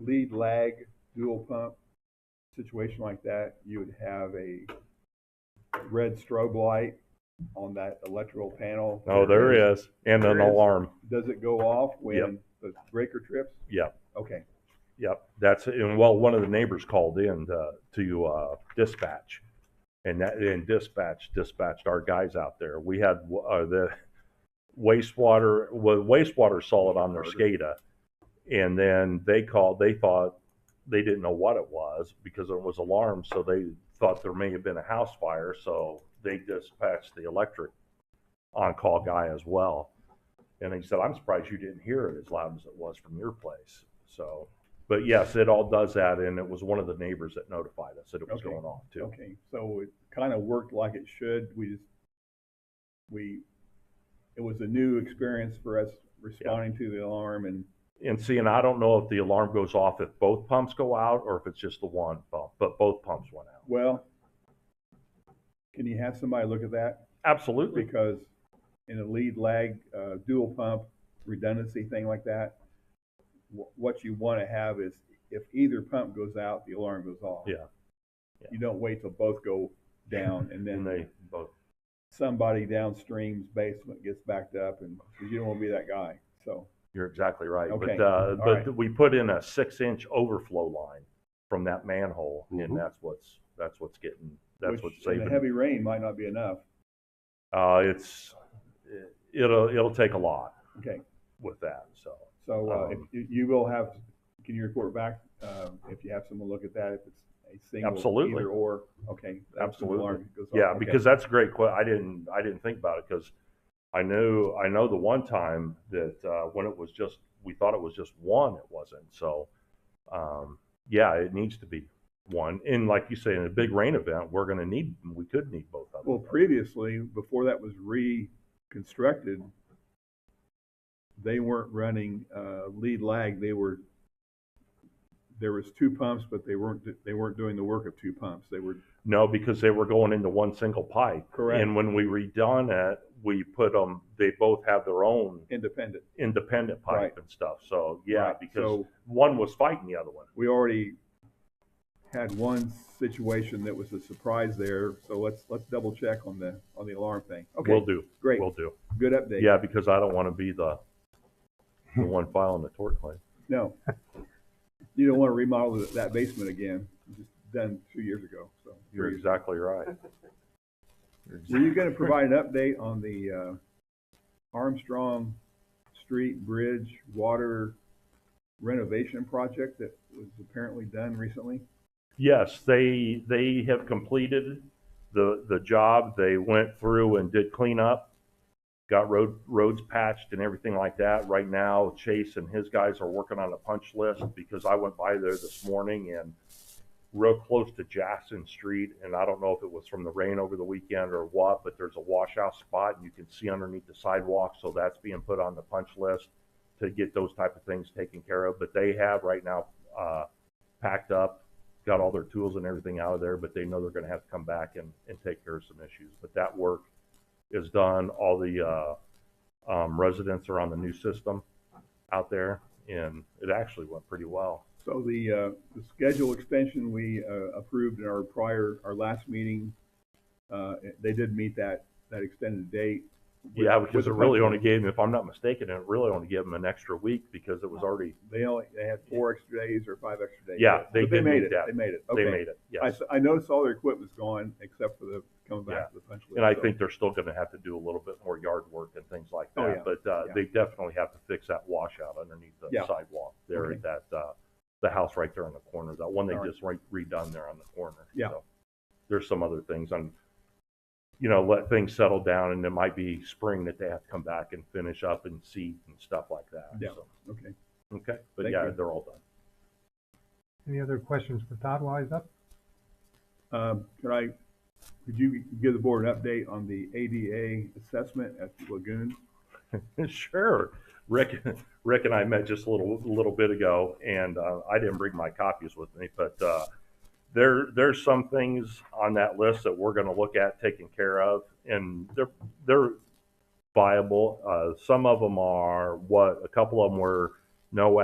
lead lag dual pump situation like that, you would have a red strobe light on that electrical panel. Oh, there is, and an There is. alarm. Does it go off when Yep. the breaker trips? Yep. Okay, Yep, that's and well, one of the neighbors called in to, to uh, dispatch, and that and dispatch dispatched our guys out there. We had uh, the wastewater well, wastewater saw it on their SCADA, and then they called. They thought they didn't know what it was because it was alarmed, so they thought there may have been a house fire. So they dispatched the electric on call guy as well. And he said, "I'm surprised you didn't hear it as loud as it was from your place." So but yes, it all does that, and it was one of the neighbors that notified us that it was Okay. going off too. okay, so it kind of worked like it should, we just, we, it was a new experience for us responding to the alarm and, And see, and I don't know if the alarm goes off if both pumps go out or if it's just the one pump, but both pumps went out. well, can you have somebody look at that? Absolutely. because in a lead lag, uh, dual pump redundancy thing like that, wh- what you want to have is if either pump goes out, the alarm goes off. Yeah. Yeah. You don't wait till both go down and then And they both, somebody downstream's basement gets backed up and 'cause you don't want to be that guy. So, you're exactly right. Okay. But, uh, All but we put in a six inch overflow line from that manhole and Mhm. that's what's, that's what's getting, that's which what's in saving. the heavy rain might not be enough. Uh, it's, it- it'll, it'll take a lot Okay. with that, so. So, uh, if Um, you, you will have, can you report back, um, if you have someone look at that, if it's a single Absolutely. either or? Okay. that's when the Absolutely. alarm goes off. Yeah, Okay. because that's a great question. I didn't I didn't think about it because I knew I know the one time that uh, when it was just we thought it was just one, it wasn't. So um, yeah, it needs to be one. And like you say, in a big rain event, we're going to need we could need both of them. Well, previously, before that was reconstructed, they weren't running uh, lead lag. They were there was two pumps, but they weren't they weren't doing the work of two pumps. They were no, because they were going into one single pipe. Correct. And when we redone it, we put them. They both have their own independent. independent pipe Right. and stuff. So yeah, Right. because so one was fighting the other one. we already had one situation that was a surprise there. So let's let's double check on the on the alarm thing. Okay, We'll do. great, We'll do. good update. Yeah, because I don't want to be the, the one filing the tort claim. No, you don't want to remodel that basement again. It was done two years ago. So You're exactly right. Were you gonna provide an update on the uh, Armstrong Street Bridge Water renovation project that was apparently done recently? Yes, they, they have completed the, the job. They went through and did cleanup, got road, roads patched and everything like that. Right now, Chase and his guys are working on a punch list because I went by there this morning and real close to Jackson Street. And I don't know if it was from the rain over the weekend or what, but there's a washout spot and you can see underneath the sidewalk. So that's being put on the punch list to get those type of things taken care of. But they have right now, uh, packed up got all their tools and everything out of there, but they know they're gonna have to come back and, and take care of some issues. But that work is done. All the, uh, um, residents are on the new system out there and it actually went pretty well. So the, uh, the schedule extension we uh, approved in our prior, our last meeting, uh, they did meet that, that extended date. with- Yeah, with because the it really punch only list. gave them, if I'm not mistaken, it really only gave them an extra week because it was Oh, already, They only, they had four extra days or five extra days. Yeah, they But they did made meet it, that. they made it, they okay. made it, I, yes. s- I noticed all their equipment's gone except for the, coming back to the punch list. And I so- think they're still gonna have to do a little bit more yard work and things like Oh, yeah. that. But, uh, Yeah. they definitely have to fix that washout underneath the Yeah. sidewalk there Okay. at that, uh, the house right there in the corner, that one they All right. just re- redone there on the corner. Yeah. So, There's some other things on, you know, let things settle down and it might be spring that they have to come back and finish up and seed and stuff like that. Yeah. So, Okay. Okay, but Thank yeah, you. they're all done. Any other questions for Todd while he's up? Um, could I, could you give the board an update on the ADA assessment at the lagoon? Sure. Rick, Rick and I met just a little, little bit ago and, uh, I didn't bring my copies with me, but, uh, there, there's some things on that list that we're gonna look at taking care of and they're, they're viable. Uh, some of them are what, a couple of them were no